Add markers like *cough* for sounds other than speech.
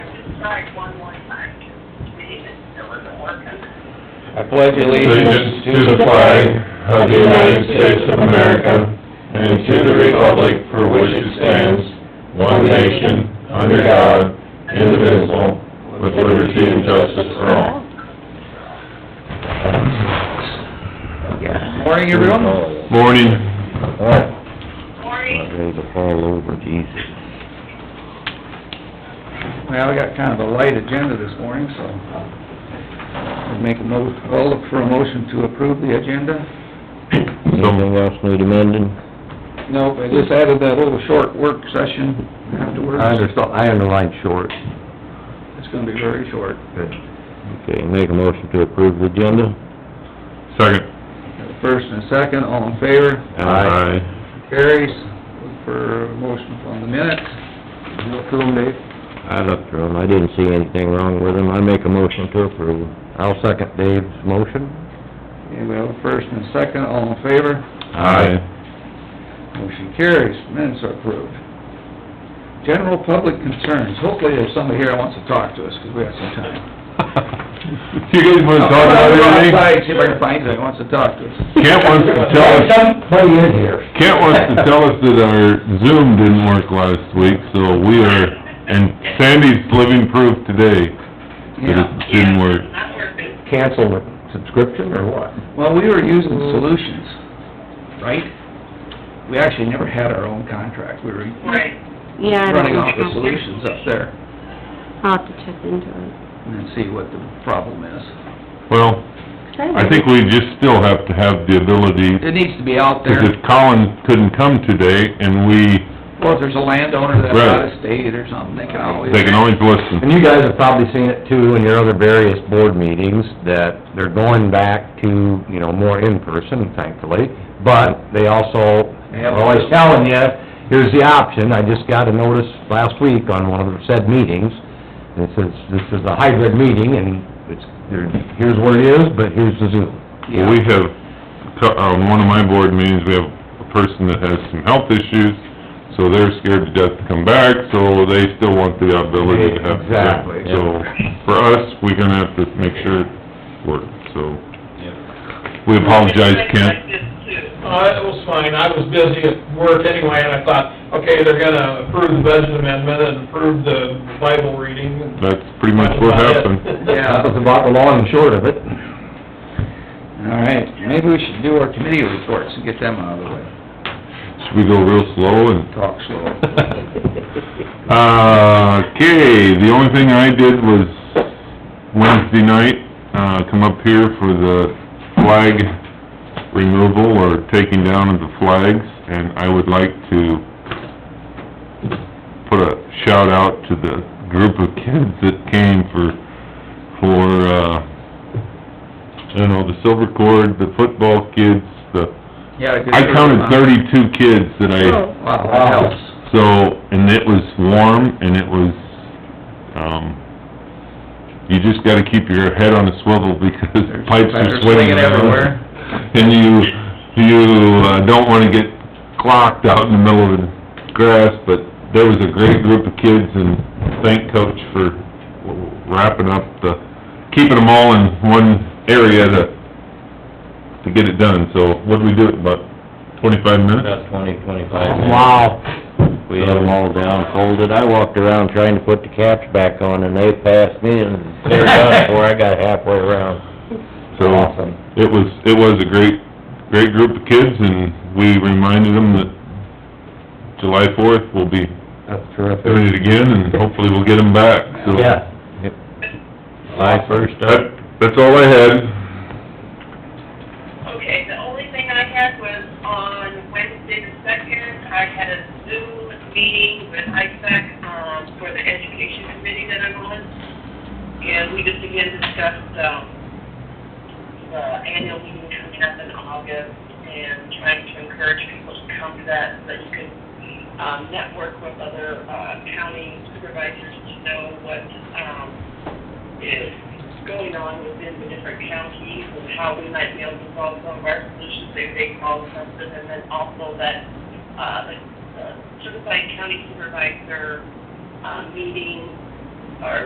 tried one more time to read it, it wasn't working. I pledge allegiance to the flag of the United States of America and to the republic for which it stands, one nation, under God, indivisible, with liberty and justice for all. Morning, everyone. Morning. Cory, ready to fall over, Jesus. Well, we got kind of a light agenda this morning, so I'll make a mo, I'll look for a motion to approve the agenda. Anything else need amending? Nope, I just added that little short work session afterwards. I underlined short. It's gonna be very short. Okay, make a motion to approve the agenda? Second. Got a First and a second, all in favor, carries. Look for a motion on the minutes. You approve, Dave? I looked through them, I didn't see anything wrong with them, I make a motion to approve. I'll second Dave's motion. Okay, we have a first and a second, all in favor, *laughs* Aye. motion carries, minutes are approved. General public concerns, hopefully there's somebody here that wants to talk to us, 'cause we have some time. Do you guys wanna talk about I'll go outside, anything? see if I can find somebody who wants to talk to us. Kent wants to tell us. Kent wants to tell us that our Zoom didn't work last week, so we are, and Sandy's living proof today that Yeah, it didn't work. not working. Cancel the subscription or what? well, we were using Solutions, right? We actually never had our own contract, we were Right. Yeah, I don't running know. off of Solutions up there, I'll have to check into it. and then see what the problem is. Well, I think we just still have to have the ability It needs to be out there, Because if Colin couldn't come today, and we, or if there's a landowner that's out Right. of state or something, they can always... they can always listen. And you guys have probably seen it too in your other various board meetings, that they're going back to, you know, more in-person thankfully, but they also, They have- are always telling you, here's the option, I just got a notice last week on one of the said meetings, and it says, this is a hybrid meeting, and it's, there- here's what it is, but here's the Zoom. Well, we have, co- on one of my board meetings, we have a person that has some health issues, so they're scared to death to come back, so they still want the ability to have Zoom. Exactly. So, for us, we're gonna have to make sure it works, so. We apologize, Kent. Oh, it was fine, I was busy at work anyway, and I thought, okay, they're gonna approve the budget amendment and approve the Bible reading. and That's pretty much what that's about happened. it. *laughs* Yeah. That was about the long and short of it. All right, maybe we should do our committee reports and get them out of the way, Should we go real slow and talk slow. *laughs* Uh, okay, the only thing I did was Wednesday night, uh, come up here for the flag removal or taking down of the flags, and I would like to put a shout out to the group of kids that came for, for, uh, I don't know, the silver cord, the football kids, the, Yeah, a good I counted amount. thirty-two kids that I... Wow, that helps. So, and it was warm, and it was, um, you just gotta keep your head on a swivel because There's pipes are spiders swinging swinging everywhere. around. And you, you uh, don't wanna get clocked out in the middle of the grass, but there was a great group of kids, and thank Coach for wrapping up the, keeping them all in one area to, to get it done. So what'd we do, about twenty-five minutes? About twenty, twenty-five minutes. Oh, Wow. We had them all down folded. I walked around trying to put the caps back on and they passed me and cleared up before I got halfway around. So, Awesome. it was, it was a great, great group of kids, and we reminded them that July fourth, we'll be That's doing it again, and hopefully we'll get them back, so. Yeah. My first That, up. that's all I had. Okay, the only thing I had was on Wednesday the second, I had a Zoom meeting with ISAC, um, for the education committee that I'm on. And we just again discussed, um, the annual meeting coming up in August and trying to encourage people to come to that, so that you could, um, network with other, uh, county supervisors to know what, um, is going on within the different counties and how we might be able to solve some of our solutions if they call something, and then also that, uh, the the certified county supervisor, uh, meeting